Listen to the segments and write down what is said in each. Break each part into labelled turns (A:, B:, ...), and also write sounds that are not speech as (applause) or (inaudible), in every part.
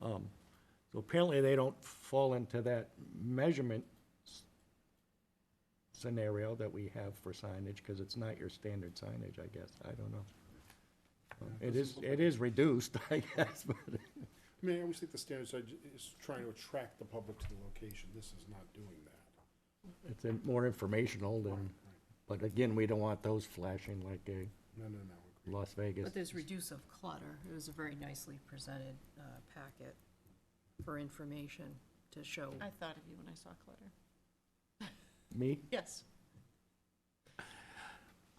A: Um, So apparently, they don't fall into that measurement s- scenario that we have for signage, because it's not your standard signage, I guess, I don't know. Um, It is, it is reduced, (laughs) I guess, but,
B: I mean, I always think the standard side is trying to attract the public to the location. This is not doing that.
A: It's in- more informational than, but again, we don't want those flashing like a
B: No, no, no.
A: Las Vegas.
C: But there's reduce of clutter. It was a very nicely presented uh, packet for information to show.
D: I thought of you when I saw clutter.
A: Me,
D: Yes.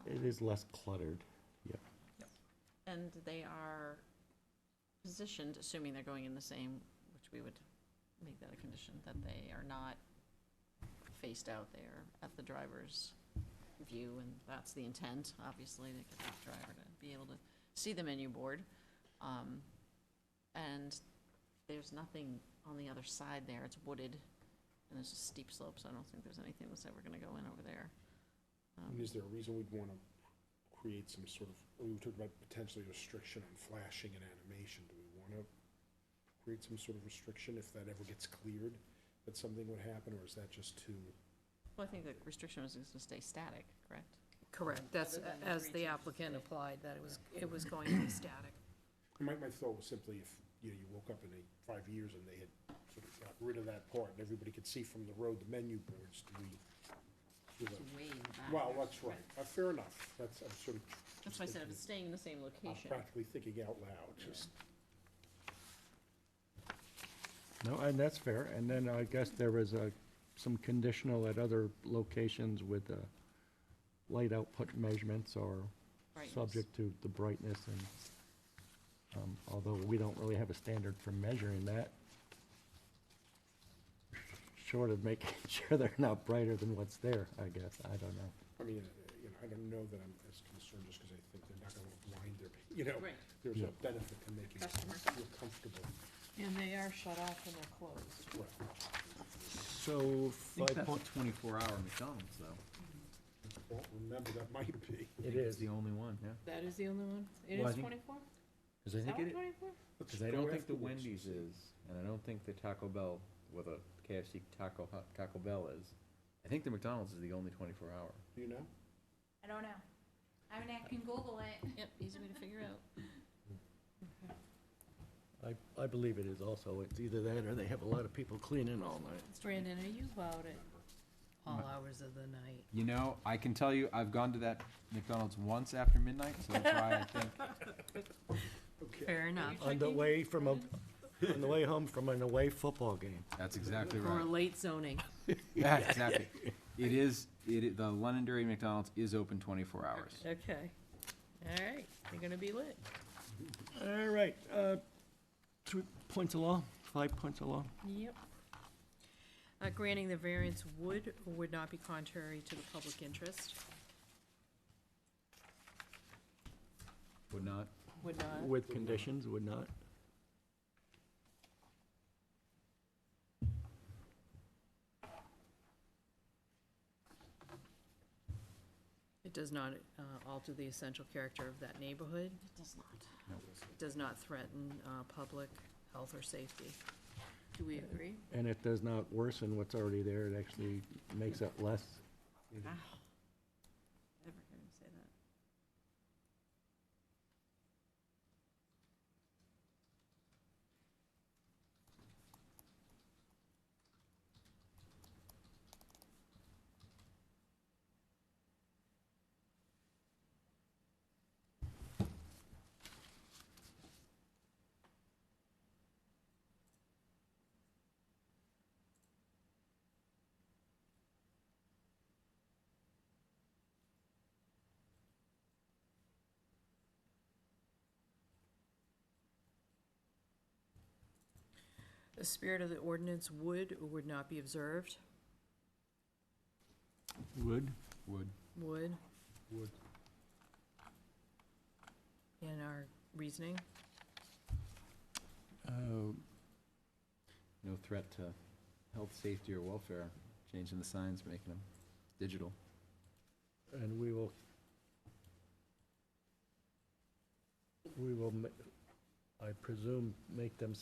A: it is less cluttered, yeah.
D: And they are positioned, assuming they're going in the same, which we would make that a condition, that they are not faced out there at the driver's view, and that's the intent, obviously, to get that driver to be able to see the menu board. Um, And there's nothing on the other side there, it's wooded, and there's a steep slope, so I don't think there's anything that's ever gonna go in over there. Um,
B: And is there a reason we'd want to create some sort of, we talked about potentially restriction on flashing and animation. Do we want to create some sort of restriction if that ever gets cleared, that something would happen, or is that just too?
D: Well, I think the restriction was just to stay static, correct?
C: Correct, that's,
D: Other than
C: as the
D: reduce.
C: applicant applied, that it was, it was going to be static.
B: My, my thought was simply if, you know, you woke up in a, five years and they had sort of got rid of that part and everybody could see from the road the menu boards, do we? do
D: It's
B: a-
D: way in the back.
B: Well, that's right. Uh, Fair enough. That's, I'm sort of.
D: That's why I said if
B: thinking-
D: it's staying in the same
B: I'm
D: location.
B: practically thinking out loud, just,
A: No, and that's fair, and then I guess there was a, some conditional at other locations with uh, light output measurements or
D: Brightness.
A: subject to the brightness and, um, although we don't really have a standard for measuring that, short of making (laughs) sure they're not brighter than what's there, I guess, I don't know.
B: I mean, uh, you know, I don't know that I'm as concerned just because I think they're not gonna blind their, you know,
D: Right.
B: there's
A: Yeah.
B: a benefit to making
D: Customer.
B: people feel comfortable.
C: And they are shut off and they're closed.
B: Well,
A: So
E: I think
A: five
E: that's
A: point,
E: a twenty-four hour McDonald's though.
B: well, remember, that might be.
A: it
E: It's
A: is,
E: the only one, yeah.
C: That is the only one? It
E: Well, I
C: is
E: think-
C: twenty-four?
E: Cause I
C: Is that
E: think
C: one
E: it,
C: twenty-four?
E: cause I don't think the Wendy's is, and I don't think the Taco Bell, or the KFC Taco Hut, Taco Bell is. I think the McDonald's is the only twenty-four hour.
B: You know?
F: I don't know. I mean, I can Google it.
D: Yep, easy way to figure out.
A: I, I believe it is also, it's either that or they have a lot of people cleaning all night.
C: Brandon, are you about it? All hours of the night.
E: You know, I can tell you, I've gone to that McDonald's once after midnight, so that's why I think,
B: Okay.
C: Fair enough.
A: On the way from a, on the way home from an away football game.
E: that's exactly
C: Or
E: right.
C: late zoning.
E: Yeah, exactly. It is, it, i- the Londonderry McDonald's is open twenty-four hours.
C: Okay. All right, you're gonna be lit.
A: All right, uh, three points of law, five points of law.
C: Yep. Uh, Granting the variance would or would not be contrary to the public interest?
E: Would not,
C: Would not.
A: With conditions, would not.
C: It does not uh, alter the essential character of that neighborhood,
D: It does not.
C: does not threaten uh, public health or safety. Do we agree?
A: And it does not worsen what's already there, it actually makes it less.
D: Wow. Never heard him say that.
C: The spirit of the ordinance would or would not be observed?
A: Would?
E: would.
C: Would,
B: Would,
C: in our reasoning?
E: Oh. No threat to health, safety, or welfare, changing the signs, making them digital.
A: And we will. We will, ma- I presume, make them